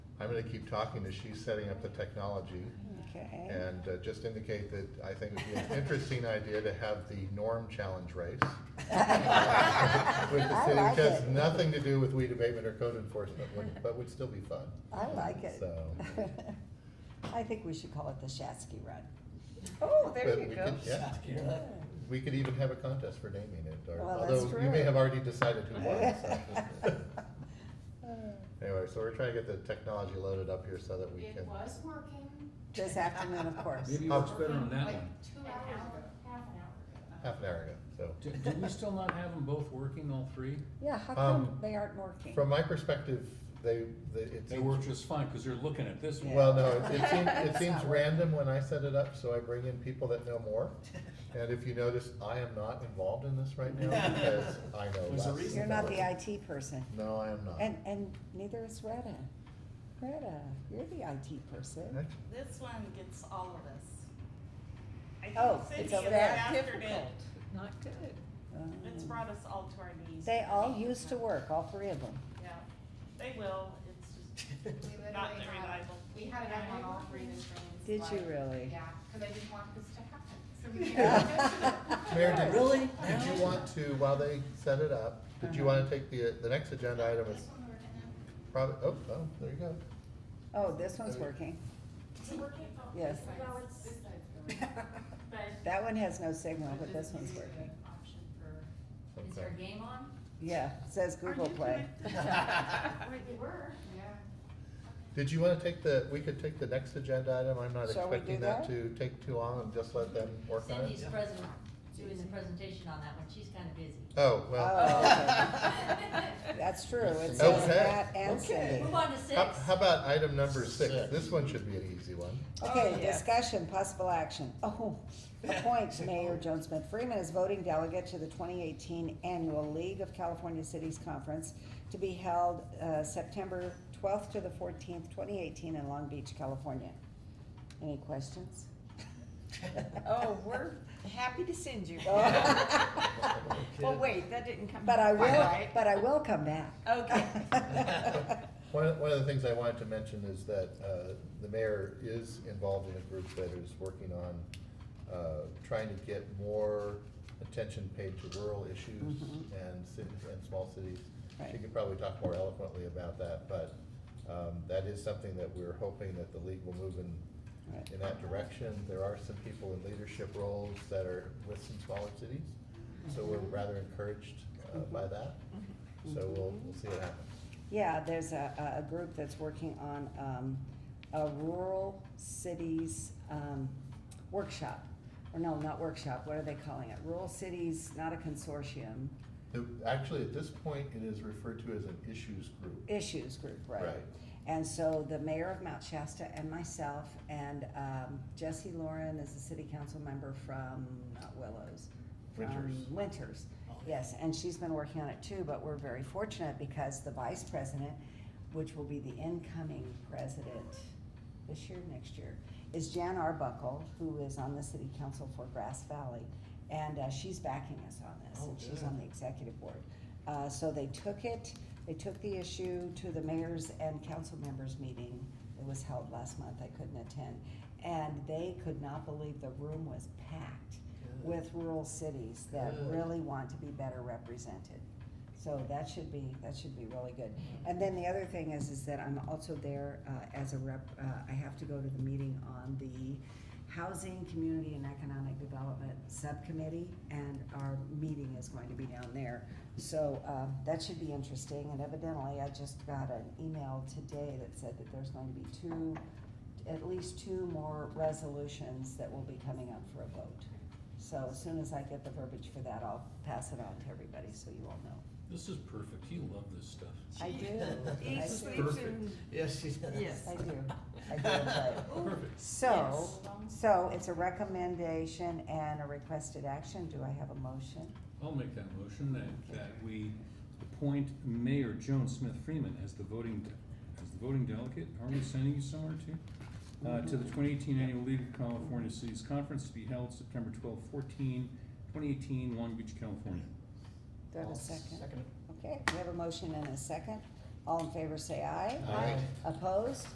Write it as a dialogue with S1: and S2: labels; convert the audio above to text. S1: gonna keep talking as she's setting up the technology
S2: Okay.
S1: and uh, just indicate that I think it would be an interesting idea to have the norm challenge race. With the
S2: I
S1: city,
S2: like
S1: which has
S2: it.
S1: nothing to do with weed abatement or code enforcement, would- but would still be fun.
S2: I like it.
S1: So-
S2: I think we should call it the Shatsky Run.
S3: Oh,
S1: But
S3: there you
S1: we
S3: go.
S1: could- yeah. We could even have a contest for naming it, or,
S2: Well,
S1: although
S2: that's
S1: you may
S2: true.
S1: have already decided who won. so. Anyway, so we're trying to get the technology loaded up here so that we
S4: It
S1: can.
S4: was working.
S2: This afternoon, of course.
S5: Maybe it
S1: Oh.
S5: works better on that
S4: like
S5: one.
S4: Two hours ago, half an hour ago.
S1: Half an hour ago, so.
S5: Do, do we still not have them both working, all three?
S2: Yeah, how
S1: Um,
S2: come they aren't working?
S1: From my perspective, they, they, it
S5: They work
S1: seems,
S5: just fine, cause they're looking at this one.
S1: well, no, it- it seems, it
S2: It's
S1: seems
S2: not working.
S1: random when I set it up, so I bring in people that know more. And if you notice, I am not involved in this right now because I know
S5: There's a
S1: less.
S5: reason
S2: You're
S1: than
S2: not the
S1: everyone.
S2: IT person.
S1: No, I am not.
S2: And, and neither is Greta. Greta, you're the IT person.
S1: Actually,
S6: This one gets all of us.
S2: Oh,
S6: I think
S2: it's
S6: Cindy
S2: over
S6: is
S2: there.
S6: after it.
S3: Not good.
S2: Um,
S6: It's brought us all to our knees.
S2: They all used to work, all three of them.
S6: Yeah, they will, it's just
S4: We literally
S6: not
S4: had-
S6: reliable.
S4: We had it up on all three of the screens.
S2: Did you
S4: like,
S2: really?
S4: Yeah, because I didn't want this to happen. So we had-
S1: Mayor, did-
S5: Really?
S1: Did you want to, while they set it up, did you
S2: Uh-huh.
S1: want to take the, the next agenda item is
S4: This one we're gonna-
S1: probably, oh, oh, there you go.
S2: Oh, this one's working.
S4: Is it working? Oh,
S2: Yes.
S4: this side's-
S7: Well, it's-
S4: This side's going. But.
S2: That one has no signal,
S4: but
S2: but this one's
S4: is an
S2: working.
S4: Option for,
S7: Is
S1: Okay.
S7: there a game on?
S2: Yeah, it says Google Play.
S4: wait, we were, yeah.
S1: Did you want to take the, we could take the next agenda item, I'm not
S2: Shall we
S1: expecting
S2: do
S1: that
S2: that?
S1: to take too long and just let them work on it.
S7: Cindy's present, doing the presentation on that one, she's kinda busy.
S1: Oh, well,
S2: That's true. It says
S1: Okay.
S2: that and Cindy.
S7: Move on to
S1: how,
S7: six.
S1: how about item number six?
S8: Six.
S1: This one should be an easy one.
S2: Okay,
S3: Oh, yeah.
S2: discussion, possible action. Oh, appoint Mayor Joan Smith Freeman as voting delegate to the twenty eighteen annual League of California Cities Conference to be held, uh, September twelfth to the fourteenth, twenty eighteen in Long Beach, California. Any questions?
S3: Oh, we're happy to send you.
S2: Oh,
S3: Well, wait, that didn't come.
S2: But I will,
S3: Right.
S2: but I will come back.
S3: Okay.
S1: One, of- one of the things I wanted to mention is that, uh, the mayor is involved in a group that is working on, uh, trying to get more attention paid to rural issues
S2: Mhm.
S1: and cities, and small cities. She
S2: Right.
S1: could probably talk more eloquently about that, but, um, that is something that we're hoping that the league will move in
S2: Right.
S1: in that direction. There are some people in leadership roles that are with some smaller cities, so we're
S2: Mm-hmm.
S1: rather encouraged uh, by that. So we'll, we'll see what happens.
S2: Yeah, there's a, a- a group that's working on, um, a rural cities, um, workshop. Or no, not workshop, what are they calling it? Rural cities, not a consortium,
S1: It- Actually, at this point, it is referred to as an issues group.
S2: issues group, right?
S1: Right.
S2: And so the mayor of Mount Shasta and myself and, um, Jesse Lauren is a city council member from, not Willows. from
S1: Winters. Oh,
S2: Winters, yes, and she's been working on it too, but we're very fortunate because the vice president, which will be the incoming president this year, next year, is Jan Arbuckle, who is on the city council for Grass Valley. And, uh, she's backing us on this, and she's on the executive board. Uh, so they took it, they took the issue to the mayor's and council members' meeting. It was held last month, I couldn't attend. And they could not believe the room was packed with rural cities that
S8: Good.
S2: really want to be better represented. So that should be, that should be really good. And then the other thing is, is that I'm also there uh, as a rep, uh, I have to go to the meeting on the Housing, Community and Economic Development Subcommittee, and our meeting is going to be down there. So uh, that should be interesting, and evidently, I just got an email today that said that there's going to be two, at least two more resolutions that will be coming up for a vote. So as soon as I get the verbiage for that, I'll pass it on to everybody, so you all know.
S5: This is perfect, you love this stuff.
S2: I do.
S3: Eat,
S2: I
S5: This is
S3: sleep,
S2: do.
S5: perfect.
S3: and-
S8: Yes, she does.
S3: Yes.
S2: I do, I do enjoy it.
S5: Perfect.
S2: So, so it's a recommendation and a requested action. Do I have a motion?
S5: I'll make that motion that, that we appoint Mayor Joan Smith Freeman as the voting, as the voting delegate. Are we sending you somewhere too? Uh, to the twenty eighteen annual League of California Cities Conference to be held September 12, 14, 2018, Long Beach, California.
S2: Do I have a second? Okay, we have a motion and a second. All in favor, say aye.
S1: Aye.
S2: Opposed?